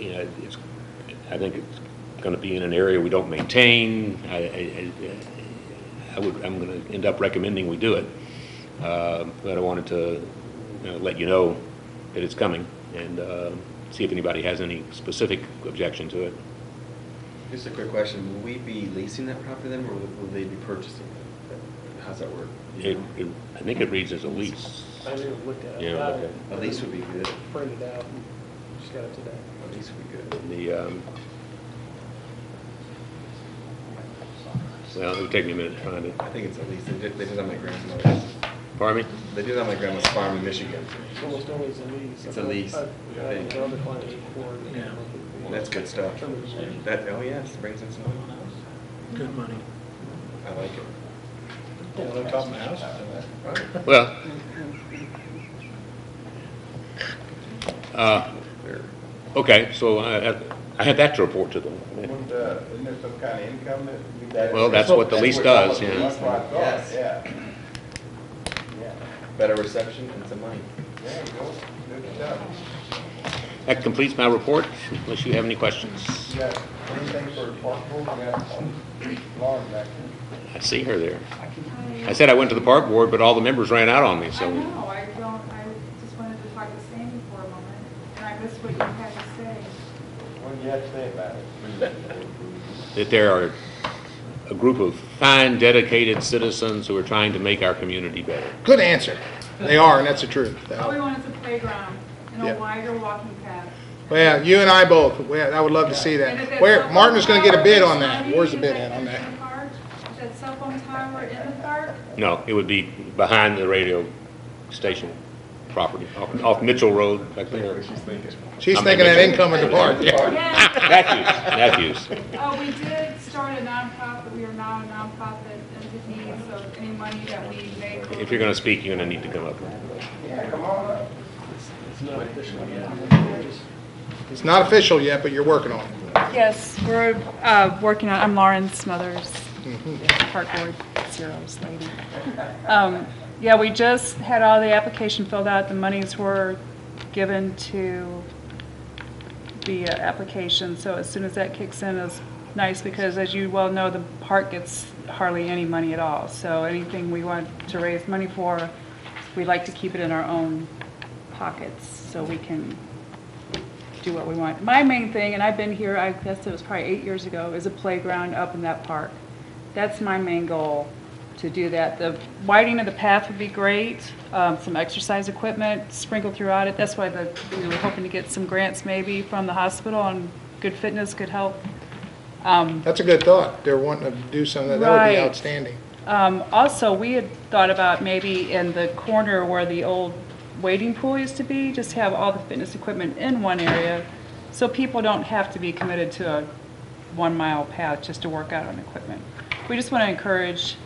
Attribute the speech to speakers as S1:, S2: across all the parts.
S1: you know, it's, I think it's gonna be in an area we don't maintain. I, I, I- I would, I'm gonna end up recommending we do it. Uh, But I wanted to, you know, let you know that it's coming and, uh, see if anybody has any specific objection to it.
S2: Just a quick question, will we be leasing that property then, or will will they be purchasing it? How's that work?
S1: It, it- I think it reads as a lease.
S3: I haven't even looked at it.
S1: Yeah, look at it.
S2: A lease would be good,
S3: Printed it out, and just got it today.
S2: a lease would be good.
S1: And The, um, well, it'll take me a minute to find it.
S2: I think it's a lease, they did, they did on my grandmother's,
S1: Pardon me?
S2: they did on my grandma's farm in Michigan.
S3: It's almost always a lease.
S2: It's a lease.
S3: I've- I've had another client before.
S4: Yeah.
S2: That's good stuff. That, oh yes, brings in some,
S4: Good money.
S2: I like it.
S4: Well, on top of my house.
S1: Well. Uh,
S2: They're-
S1: Okay, so I, I- I had that to report to them.
S5: Wouldn't, uh, Isn't there some kind of income that we got?
S1: Well, that's what the lease does, yeah.
S5: That's what I thought,
S2: Yes.
S5: yeah. Yeah,
S2: Better reception and some money.
S5: there you go, good job.
S1: That completes my report, unless you have any questions.
S5: You got anything for park board, you got a lawn back there?
S1: I see her there. I said I went to the park board, but all the members ran out on me,
S6: I
S1: so.
S6: know, I don't, I just wanted to talk to Sandy for a moment, and I missed what you had to say.
S4: Oh.
S5: What do you have to say about it?
S1: That there are a group of fine, dedicated citizens who are trying to make our community better.
S4: Good answer. They are, and that's the truth.
S6: All we want is a playground and
S4: Yeah.
S6: a wider walking path.
S4: Well, you and I both, well, I would love to see
S6: And if
S4: that.
S6: that
S4: Where,
S6: cell phone
S4: Martin's gonna get a
S6: tower
S4: bid
S6: is
S4: on that.
S6: tiny,
S4: Where's the
S6: if
S4: bid
S6: that
S4: at on
S6: is
S4: that?
S6: in the park, if That cell phone tower in the park,
S1: No, it would be behind the radio station property, off- off Mitchell Road, back there. Ah,
S4: She's
S1: I'm
S4: thinking that
S1: thinking-
S4: income in the park, yeah.
S6: yes.
S1: Matthews, Matthews.
S6: Oh, we did start a nonprofit, we are now a nonprofit entity, so any money that we make.
S1: If you're gonna speak, you're gonna need to come up.
S5: Yeah, come on up.
S3: It's not official yet. Just-
S4: It's not official yet, but you're working on it.
S6: Yes, we're, uh, working on, I'm Lauren Smothers, Park Board Zeros lady. Um, yeah, we just had all the application filled out, the monies were given to the uh, application, so as soon as that kicks in is nice, because as you well know, the park gets hardly any money at all, so anything we want to raise money for, we like to keep it in our own pockets, so we can do what we want. My main thing, and I've been here, I guess it was probably eight years ago, is a playground up in that park. That's my main goal, to do that. The widening of the path would be great, um, some exercise equipment sprinkled throughout it. That's why the, we were hoping to get some grants maybe from the hospital on good fitness, good health. Um,
S4: That's a good thought. They're wanting to do something, that would be
S6: Right.
S4: outstanding.
S6: um, also, we had thought about maybe in the corner where the old waiting pool used to be, just have all the fitness equipment in one area, so people don't have to be committed to a one-mile path just to work out on equipment. We just want to encourage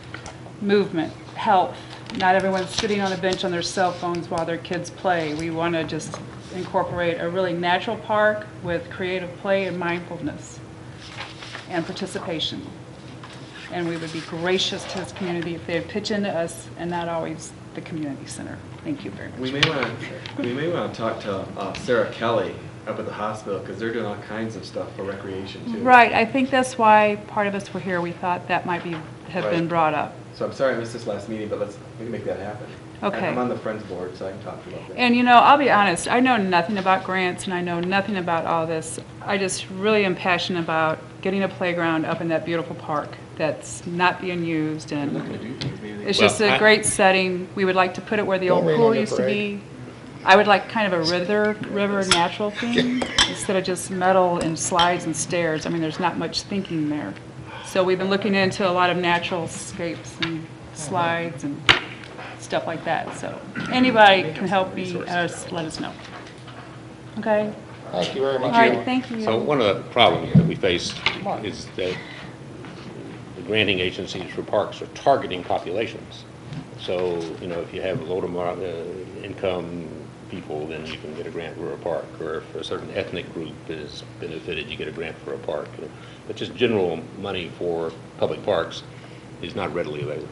S6: movement, health. Not everyone's sitting on a bench on their cell phones while their kids play. We want to just incorporate a really natural park with creative play and mindfulness and participation and we would be gracious to this community if they would pitch into us and not always the community center. Thank you very much.
S2: We may want, we may want to talk to uh, Sarah Kelly up at the hospital, because they're doing all kinds of stuff for recreation too.
S6: Right, I think that's why part of us were here, we thought that might be, have been
S2: Right.
S6: brought up.
S2: So I'm sorry I missed this last meeting, but let's, we can make that happen.
S6: Okay.
S2: I'm on the Friends Board, so I can talk to you about that.
S6: And you know, I'll be honest, I know nothing about grants and I know nothing about all this. I just really am passionate about getting a playground up in that beautiful park that's not being used
S2: We're
S6: and
S2: looking to do things, maybe.
S6: It's
S1: Well,
S6: just a
S1: I-
S6: great setting. We would like to put it where the
S4: Don't
S6: old
S4: rain on
S6: pool
S4: your
S6: used to
S4: parade.
S6: be. I would like kind of a river, river natural theme instead of just metal and slides and stairs. I mean, there's not much thinking there. So we've been looking into a lot of natural scapes and slides and stuff like that. So anybody can help me, uh, let us know. Okay?
S4: Thank you very
S6: All
S4: much.
S6: right, thank you.
S1: So one of the problems that we face is that the granting agencies for parks are targeting populations. So, you know, if you have low to moderate uh, income people, then you can get a grant for a park. Or if a certain ethnic group is benefited, you get a grant for a park. But just general money for public parks is not readily available.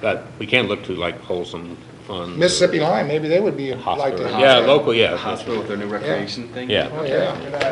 S1: But we can look to like Wholesome Fund. or
S4: Mississippi Line, maybe they would be, like to.
S1: Hospital. Yeah, local, yeah.
S2: The hospital with their new recreation thing.
S1: Yeah.
S4: Oh, yeah.